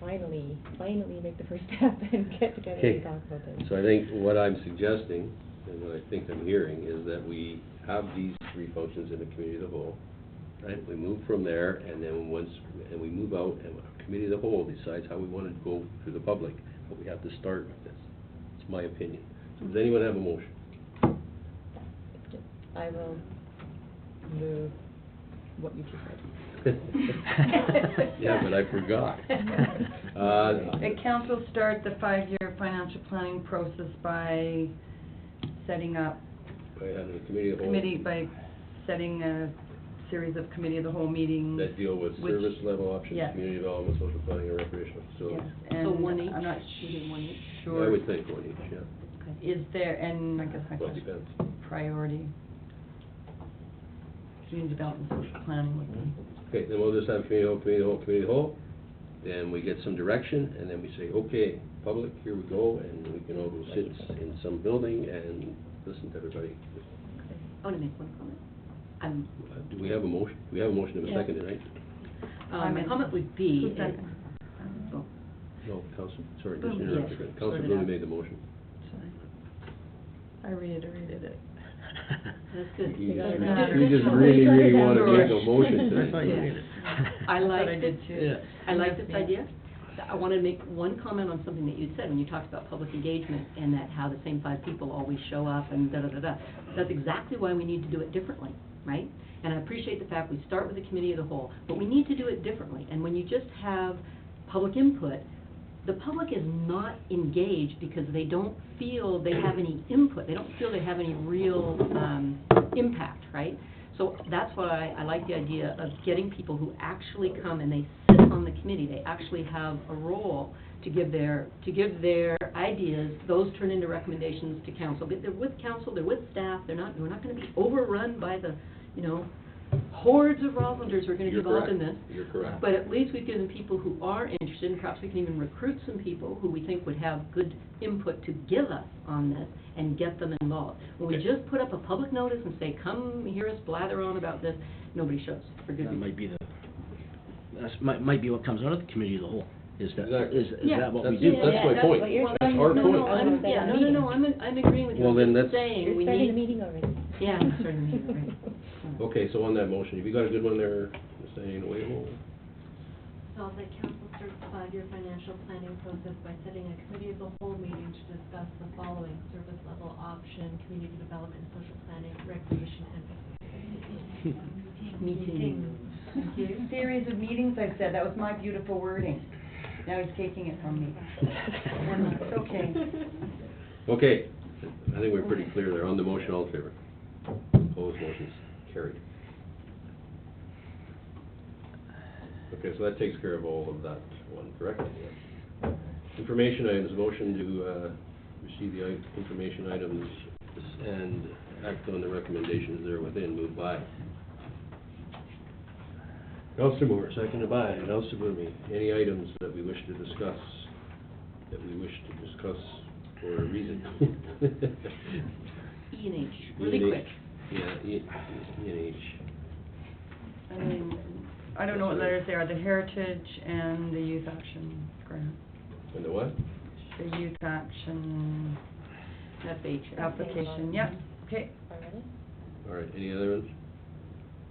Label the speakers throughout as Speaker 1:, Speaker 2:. Speaker 1: finally, finally make the first step and get together
Speaker 2: Okay.
Speaker 1: and talk about this.
Speaker 2: So I think what I'm suggesting, and what I think I'm hearing, is that we have these three functions in the committee of the whole, right? We move from there, and then once, and we move out, and our committee of the whole decides how we want to go to the public, but we have to start with this. It's my opinion. So Does anyone have a motion?
Speaker 1: I will move what you just said.
Speaker 2: Yeah, but I forgot.
Speaker 3: The
Speaker 2: Uh,
Speaker 3: council start the five-year financial planning process by setting up
Speaker 2: I have a committee of the whole
Speaker 3: committee, by setting a series of committee of the whole meetings.
Speaker 2: that deal with
Speaker 3: which-
Speaker 2: service level options,
Speaker 3: Yes.
Speaker 2: community development, social planning, and recreational
Speaker 3: Yes,
Speaker 2: facilities.
Speaker 3: and
Speaker 4: So one each?
Speaker 3: I'm not
Speaker 4: You did one each?
Speaker 3: sure.
Speaker 2: I would think one each, yeah.
Speaker 3: Is there, and I guess my
Speaker 2: Well, it
Speaker 3: question,
Speaker 2: depends.
Speaker 3: priority, community development, social planning would be,
Speaker 2: Okay, then we'll just have committee hall, committee hall, committee hall, then we get some direction, and then we say, okay, public, here we go, and we can all go sit in some building and listen to everybody.
Speaker 4: I want to make one comment. Um,
Speaker 2: Uh, Do we have a motion? We have a motion of a
Speaker 3: Yeah.
Speaker 2: second, right?
Speaker 4: uh, my
Speaker 3: Comment.
Speaker 4: comment would be,
Speaker 3: Who's second? Um,
Speaker 4: Oh,
Speaker 2: No, Council, sorry, just
Speaker 4: Boom,
Speaker 2: interrupted.
Speaker 4: Oh, yes,
Speaker 2: Council
Speaker 4: sorted
Speaker 2: Blume
Speaker 4: out.
Speaker 2: made the motion.
Speaker 3: sorry. I reiterated it.
Speaker 4: that's good.
Speaker 2: You
Speaker 1: got
Speaker 2: just-
Speaker 1: it
Speaker 3: now.
Speaker 2: you just
Speaker 1: Good
Speaker 2: really,
Speaker 1: job.
Speaker 2: really wanna
Speaker 3: Sorry.
Speaker 2: make a motion today.
Speaker 5: That's why you need it.
Speaker 4: I
Speaker 3: thought
Speaker 4: like
Speaker 3: I did
Speaker 4: it.
Speaker 3: too.
Speaker 4: I like this
Speaker 3: Yeah.
Speaker 4: idea. So I want to make one comment on something that you said when you talked about public engagement and that how the same five people always show up and da-da-da-da. That's exactly why we need to do it differently, right? And I appreciate the fact we start with the committee of the whole, but we need to do it differently. And when you just have public input, the public is not engaged because they don't feel they have any input. They don't feel they have any real um, impact, right? So that's why I like the idea of getting people who actually come and they sit on the committee. They actually have a role to give their, to give their ideas. Those turn into recommendations to council. But they're with council, they're with staff, they're not, we're not going to be overrun by the, you know, hordes of Roslinders who are going to be
Speaker 2: You're
Speaker 4: involved in this.
Speaker 2: correct. You're correct.
Speaker 4: But at least we've given people who are interested, and perhaps we can even recruit some people who we think would have good input to give us on this and get them involved. When we
Speaker 2: Okay.
Speaker 4: just put up a public notice and say, come hear us blather on about this, nobody shows for good
Speaker 5: That
Speaker 4: reason.
Speaker 5: might be the, that's, might, might be what comes out of the committee of the whole, is that,
Speaker 2: Exactly.
Speaker 5: is, is
Speaker 4: Yeah.
Speaker 5: that what we
Speaker 2: That's-
Speaker 5: do?
Speaker 2: That's my
Speaker 1: That's what
Speaker 2: point.
Speaker 1: you're
Speaker 2: That's
Speaker 1: saying.
Speaker 2: our
Speaker 4: No, no,
Speaker 2: point.
Speaker 4: I'm, yeah, no, no, no, I'm, I'm agreeing with you.
Speaker 2: Well, then
Speaker 4: I'm just
Speaker 2: that's-
Speaker 4: saying,
Speaker 1: You're
Speaker 4: we
Speaker 1: starting the
Speaker 4: need,
Speaker 1: meeting already.
Speaker 4: yeah, I'm starting the meeting, right. Yeah.
Speaker 2: Okay, so on that motion, have you got a good one there, Ms. Diane Wayhole?
Speaker 6: Resolve that council starts the five-year financial planning process by setting a committee of the whole meeting to discuss the following service level option, community development, social planning, recreation, and
Speaker 4: Meeting.
Speaker 3: Thank you. Series of meetings, I said, that was my beautiful wording. Now he's taking it from me. It's okay.
Speaker 2: Okay, I think we're pretty clear there. On the motion, all in favor? Opposed, motion's carried. Okay, so that takes care of all of that one, correct? Information items, motion to, uh, receive the i- information items and act on the recommendations there within, moved by. Counselor Moore, seconded by Counselor Blume. Any items that we wish to discuss, that we wish to discuss for a reason?
Speaker 4: E and H, really
Speaker 2: E&H.
Speaker 4: quick.
Speaker 2: Yeah, E, E and H.
Speaker 3: I mean, I don't know what letters they are, the Heritage and the Youth Action Grant,
Speaker 2: And the what?
Speaker 3: the Youth Action
Speaker 4: That's H.
Speaker 3: application, yeah, okay.
Speaker 1: Already?
Speaker 2: All right, any other ones?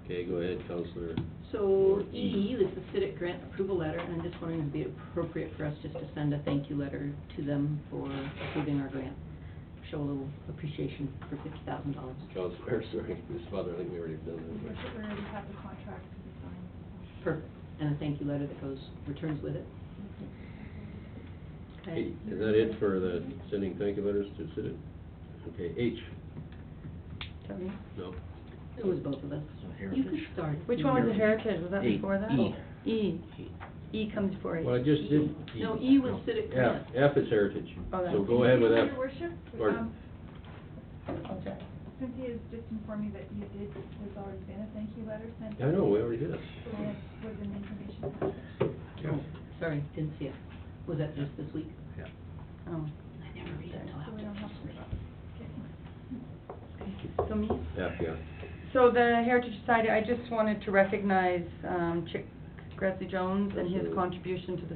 Speaker 2: Okay, go ahead, Counselor.
Speaker 4: So E, this is CITIC grant approval letter, and I'm just wondering if it'd be appropriate for us just to send a thank you letter to them for approving our grant. Show a little appreciation for fifty thousand dollars.
Speaker 2: Counselor, sorry, Ms. Butler, I think we already have done that.
Speaker 6: We already have the contract to be signed.
Speaker 4: Perfect. And a thank you letter that goes, returns with it.
Speaker 2: Hey,
Speaker 4: Okay.
Speaker 2: Is that it for the sending thank you letters to Sid? Okay, H,
Speaker 3: Sorry.
Speaker 2: no,
Speaker 4: It was both of us.
Speaker 5: So
Speaker 4: You could
Speaker 5: Heritage.
Speaker 4: start.
Speaker 3: Which one was the Heritage, was that
Speaker 5: E-
Speaker 3: before that?
Speaker 5: E.
Speaker 3: E, E comes before H.
Speaker 2: well, I just did.
Speaker 4: No, E was CITIC grant.
Speaker 2: F, F is heritage,
Speaker 3: Oh, that's-
Speaker 2: so
Speaker 4: E.
Speaker 2: go ahead with F.
Speaker 7: Your worship,
Speaker 2: Pardon.
Speaker 7: um,
Speaker 3: Okay.
Speaker 7: Cynthia has just informed me that you did, there's already been a thank you letter sent.
Speaker 2: I know, we already did it.
Speaker 7: And it was an information package.
Speaker 4: Oh, sorry, didn't see it. Was that just this week?
Speaker 5: Yeah.
Speaker 3: Oh,
Speaker 4: I never read it till
Speaker 7: So we don't have to worry about getting it.
Speaker 3: Oh, so me?
Speaker 2: F, yeah.
Speaker 3: So the Heritage Society, I just wanted to recognize, um, Chick Grassley Jones and his
Speaker 2: Absolutely.
Speaker 3: contribution to the